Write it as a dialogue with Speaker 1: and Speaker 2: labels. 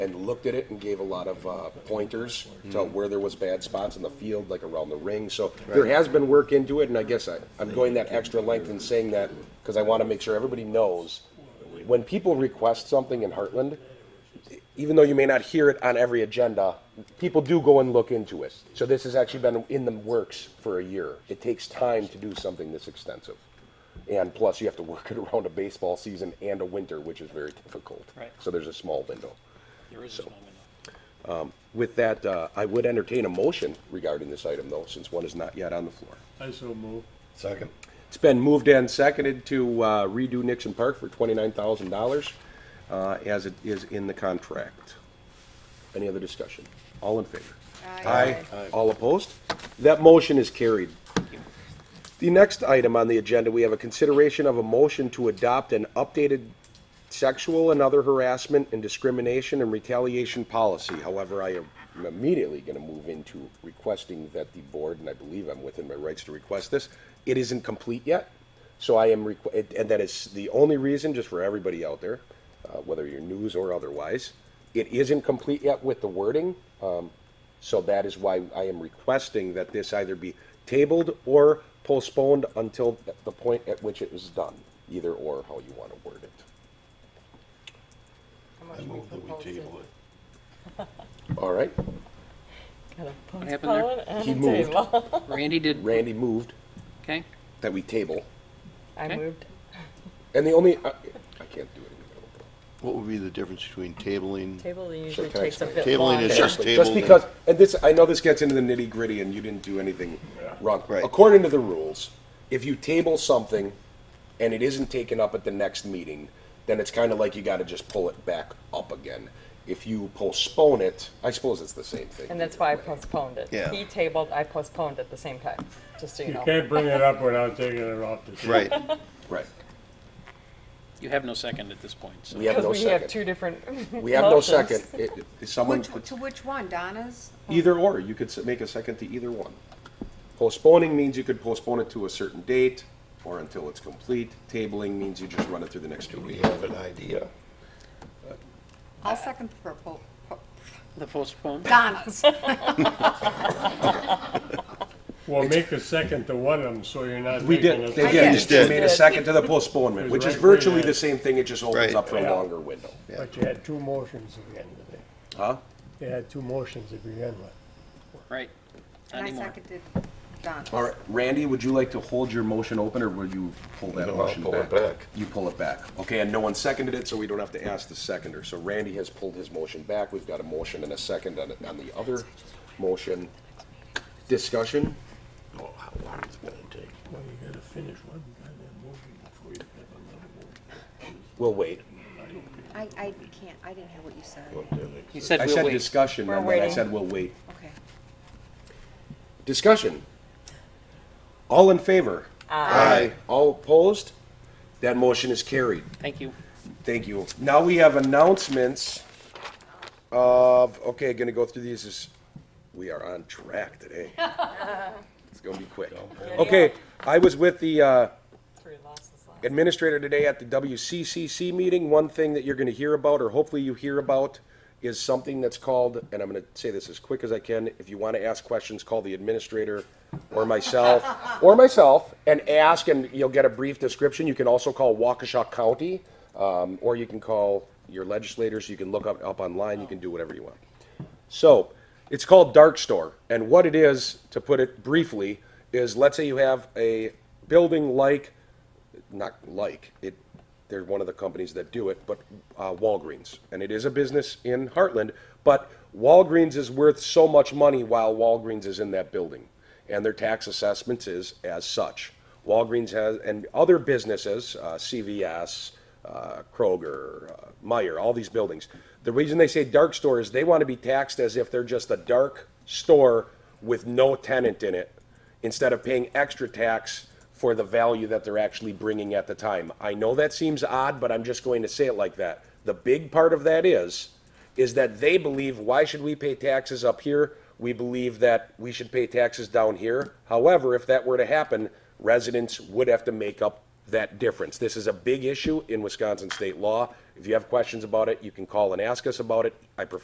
Speaker 1: and looked at it and gave a lot of uh, pointers to where there was bad spots in the field, like around the ring. So there has been work into it, and I guess I, I'm going that extra length in saying that because I want to make sure everybody knows when people request something in Heartland, even though you may not hear it on every agenda, people do go and look into it. So this has actually been in the works for a year. It takes time to do something this extensive. And plus, you have to work it around a baseball season and a winter, which is very difficult.
Speaker 2: Right.
Speaker 1: So there's a small window.
Speaker 2: There is no window.
Speaker 1: With that, uh, I would entertain a motion regarding this item, though, since one is not yet on the floor.
Speaker 3: I so move.
Speaker 4: Second.
Speaker 1: It's been moved and seconded to uh, redo Nixon Park for twenty-nine thousand dollars, uh, as it is in the contract. Any other discussion? All in favor?
Speaker 4: Aye.
Speaker 1: All opposed? That motion is carried. The next item on the agenda, we have a consideration of a motion to adopt an updated sexual and other harassment and discrimination and retaliation policy. However, I am immediately going to move into requesting that the board, and I believe I'm within my rights to request this, it isn't complete yet. So I am, requ- it- and that is the only reason, just for everybody out there, uh, whether you're news or otherwise, it isn't complete yet with the wording. Um, so that is why I am requesting that this either be tabled or postponed until the point at which it is done, either or how you want to word it.
Speaker 4: I move that we table it.
Speaker 1: All right,
Speaker 2: What happened there?
Speaker 1: He moved.
Speaker 2: Randy did,
Speaker 1: Randy moved
Speaker 2: okay,
Speaker 1: that we table,
Speaker 5: I
Speaker 2: Okay.
Speaker 5: moved.
Speaker 1: and the only, I I can't do it.
Speaker 4: What would be the difference between tabling?
Speaker 5: Table
Speaker 1: Sure,
Speaker 5: usually
Speaker 1: can I
Speaker 5: takes a
Speaker 1: explain?
Speaker 5: bit
Speaker 4: Tabling
Speaker 5: longer.
Speaker 4: is just tabled.
Speaker 1: Just because, and this, I know this gets into the nitty gritty and you didn't do anything wrong.
Speaker 4: Right.
Speaker 1: According to the rules, if you table something and it isn't taken up at the next meeting, then it's kind of like you got to just pull it back up again. If you postpone it, I suppose it's the same thing.
Speaker 5: And that's why I postponed it.
Speaker 4: Yeah.
Speaker 5: He tabled, I postponed at the same time, just so you
Speaker 3: You
Speaker 5: know.
Speaker 3: can't bring it up without taking it off the table.
Speaker 4: Right,
Speaker 1: Right.
Speaker 2: you have no second at this point, so.
Speaker 1: We have
Speaker 5: Because
Speaker 1: no
Speaker 5: we have two
Speaker 1: second.
Speaker 5: different
Speaker 1: We have no
Speaker 5: motions.
Speaker 1: second. It- it- Someone,
Speaker 6: Which, to which one, Donna's?
Speaker 1: either or, you could s- make a second to either one. Postponing means you could postpone it to a certain date or until it's complete. Tabling means you just run it through the next two
Speaker 4: we
Speaker 1: weeks.
Speaker 4: have an idea.
Speaker 6: I'll second the purple, pu-
Speaker 2: The postpone,
Speaker 6: Donna's.
Speaker 3: Well, make a second to one of them, so you're not
Speaker 1: We
Speaker 3: making
Speaker 1: did,
Speaker 3: it.
Speaker 1: they
Speaker 6: I
Speaker 1: did.
Speaker 6: just
Speaker 1: They
Speaker 4: did.
Speaker 1: made a second to the postponement, which is virtually the same thing, it just opens
Speaker 4: Right.
Speaker 1: up for a
Speaker 3: Yeah.
Speaker 1: longer window.
Speaker 3: But you had two motions at the end of it.
Speaker 1: Huh?
Speaker 3: You had two motions to begin with.
Speaker 2: right, not
Speaker 6: And I
Speaker 2: anymore.
Speaker 6: seconded Donna's.
Speaker 1: All right, Randy, would you like to hold your motion open, or will you pull that
Speaker 4: No, I'll
Speaker 1: motion back?
Speaker 4: pull it back.
Speaker 1: You pull it back. Okay, and no one seconded it, so we don't have to ask the seconder. So Randy has pulled his motion back. We've got a motion and a second on, on the other motion. Discussion?
Speaker 4: Oh, how long it's gonna take.
Speaker 3: Well, you gotta finish one goddamn motion before you have another motion.
Speaker 1: We'll wait.
Speaker 6: I, I can't, I didn't hear what you said.
Speaker 4: What did it-
Speaker 2: He said
Speaker 1: I
Speaker 2: we'll
Speaker 1: said
Speaker 2: wait.
Speaker 1: discussion,
Speaker 5: We're
Speaker 1: and then I
Speaker 5: waiting.
Speaker 1: said we'll wait.
Speaker 6: Okay.
Speaker 1: Discussion? All in favor?
Speaker 4: Aye.
Speaker 1: All opposed? That motion is carried.
Speaker 2: Thank you.
Speaker 1: Thank you. Now we have announcements of, okay, gonna go through these as, we are on track today. It's gonna be quick. Okay, I was with the, uh,
Speaker 5: Three losses left.
Speaker 1: administrator today at the WCCC meeting, one thing that you're gonna hear about, or hopefully you hear about, is something that's called, and I'm gonna say this as quick as I can, if you wanna ask questions, call the administrator or myself, or myself, and ask, and you'll get a brief description. You can also call Waukesha County, um, or you can call your legislators, you can look up, up online, you can do whatever you want. So it's called Dark Store. And what it is, to put it briefly, is let's say you have a building like, not like, it, they're one of the companies that do it, but uh, Walgreens. And it is a business in Heartland, but Walgreens is worth so much money while Walgreens is in that building. And their tax assessments is as such. Walgreens has, and other businesses, uh, CVS, uh, Kroger, uh, Meyer, all these buildings. The reason they say dark store is they want to be taxed as if they're just a dark store with no tenant in it, instead of paying extra tax for the value that they're actually bringing at the time. I know that seems odd, but I'm just going to say it like that. The big part of that is, is that they believe, why should we pay taxes up here? We believe that we should pay taxes down here. However, if that were to happen, residents would have to make up that difference. This is a big issue in Wisconsin state law. If you have questions about it, you can call and ask us about it. I prefer